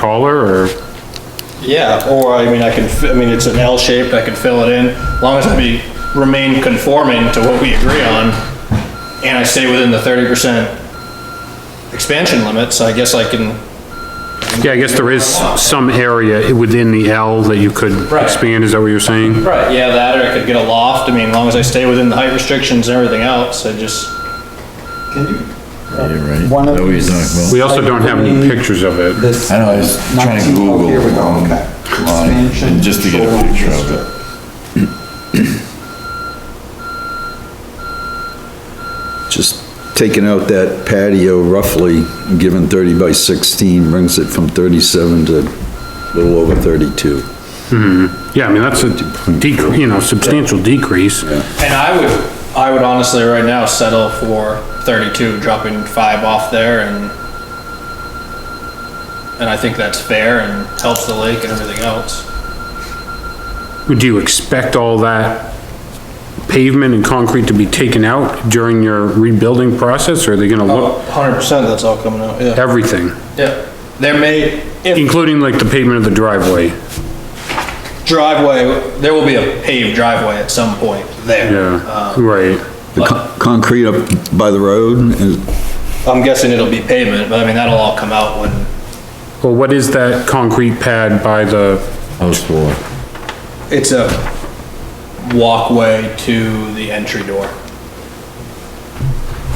taller or? Yeah, or I mean, I can, fi- I mean, it's an L shaped, I can fill it in, as long as I be, remain conforming to what we agree on, and I stay within the thirty percent expansion limits, I guess I can, Yeah, I guess there is some area within the L that you could Right. expand, is that what you're saying? right, yeah, that, or I could get a loft, I mean, as long as I stay within the height restrictions and everything else, I just, Yeah, right. One of Know what you're these- talking about. We also don't have any pictures of it. This. I know, I was trying to 19 oh, Google Here we go, long- okay. long, Expansion and just to get a shoreline picture of district. it. Just taking out that patio roughly, given 30 by 16, brings it from 37 to a little over 32. Yeah, I mean, that's a decrease, you know, substantial decrease. and I would, I would honestly right now settle for thirty-two, dropping five off there and and I think that's fair and helps the lake and everything else. Do you expect all that pavement and concrete to be taken out during your rebuilding process, or are they gonna look, Hundred percent, that's all coming out, yeah. everything? Yeah, there may, if Including like the pavement of the driveway, driveway, there will be a paved driveway at some point there. Uh, yeah, right. The con- concrete up by the road is I'm guessing it'll be pavement, but I mean, that'll all come out when, Well, what is that concrete pad by the, House floor. it's a walkway to the entry door.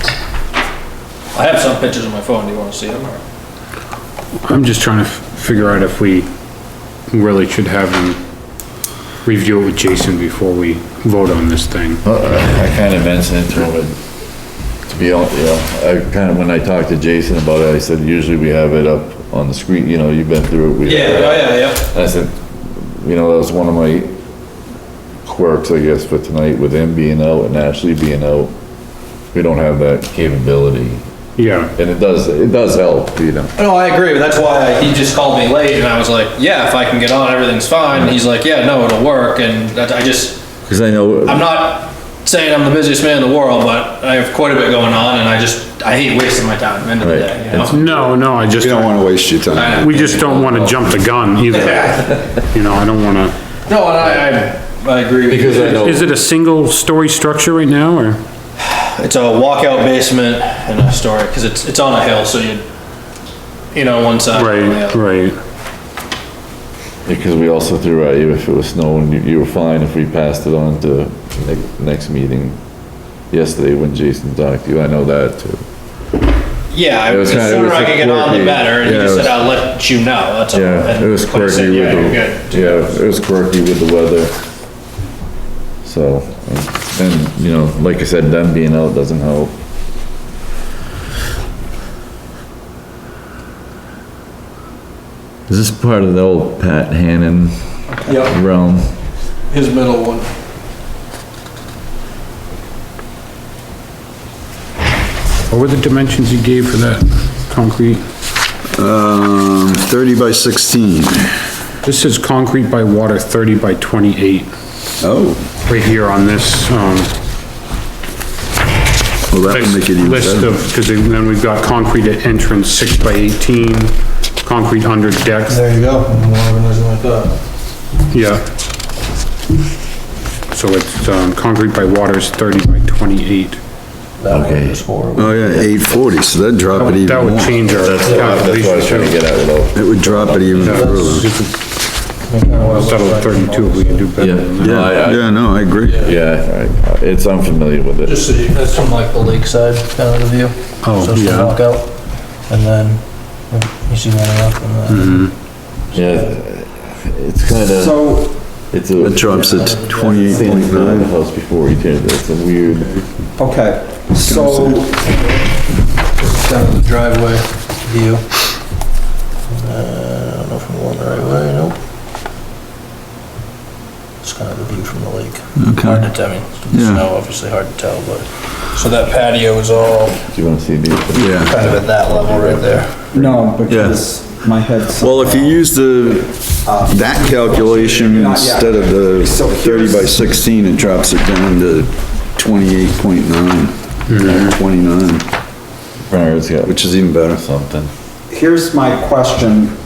I have some pictures on my phone, do you wanna see them or? I'm just trying to f- figure out if we really should have him review it with Jason before we vote on this thing. Uh, I kind of mentioned it to him, but to be honest, you know, I kind of, when I talked to Jason about it, I said, usually we have it up on the screen, you know, you've been through it. we- yeah, oh, yeah. I said, you know, that was one of my quirks, I guess, for tonight, with him being out and Ashley being out. We don't have that capability, Yeah, and it does, it does help, you know. Oh, No, I agree, but that's why I- he just called me late and I was like, yeah, if I can get on, everything's fine. And he's like, yeah, no, it'll work. And that, I just, Because I know. I'm not saying I'm the busiest man in the world, but I have quite a bit going on and I just, I hate wasting my time end of the Right. day, you know? no, no, I just, You don't want to waste your time. I- we just don't wanna jump the gun either. You know, I don't wanna, No, and I, I, I agree with you. know. is it a single story structure right now, or? It's a walkout basement and a story, cause it's, it's on a hill, so you, you know, one side. or the Right, other. right, Because we also threw at you if it was snowing, you, you were fine if we passed it on to next, next meeting yesterday when Jason talked to you, I know that too. Yeah, I- It the was kinda- it sooner was I a can get on, the quirky- better. And he yeah, it just said, was- I'll let you know, that's all. Yeah, And it was like I said, quirky with yeah, you're the, good. yeah, it was quirky with the weather. So, and, you know, like I said, them being out doesn't help. Is this part of the old Pat Hannon Yep, realm? his middle one. what were the dimensions you gave for that concrete? Um, 30 by 16. This is concrete by water thirty by twenty-eight, Oh, right here on this, um, well, that would make it even list of, better. because then we've got concrete at entrance, six by eighteen, concrete under deck, There you go. like that. yeah. So it's, um, concrete by water is thirty by twenty-eight. Okay. Oh, yeah, 840, so that'd drop it even That would more. change our That's what I that's what I was trying to calculation. get at with all. It would drop it even further. Settle at thirty-two, we can do better than that. No, I- I- Yeah, no, I agree. Yeah, I- it's, I'm familiar with it. Just so you, that's from like the lakeside kind of the view. Oh, So it's the yeah. walkout, and then you see one up Mm-hmm. and then. Yeah, it's kinda, So, it's a. That drops it to It's the 28.9. house before he did it, it's a weird. okay, so, Down to the driveway view. Uh, I don't know if I'm going the right way, nope. It's kind of the view from the lake. Hard to tell, I mean, it's Yeah. snow, obviously hard to tell, but, so that patio is all Do you wanna see the? Yeah. kind of at that level right there. no, because my head's. Well, if you use the, that calculation instead of the thirty by sixteen, it drops it down to twenty-eight point nine, twenty-nine, Bernard's got which is even better. something. Here's my question,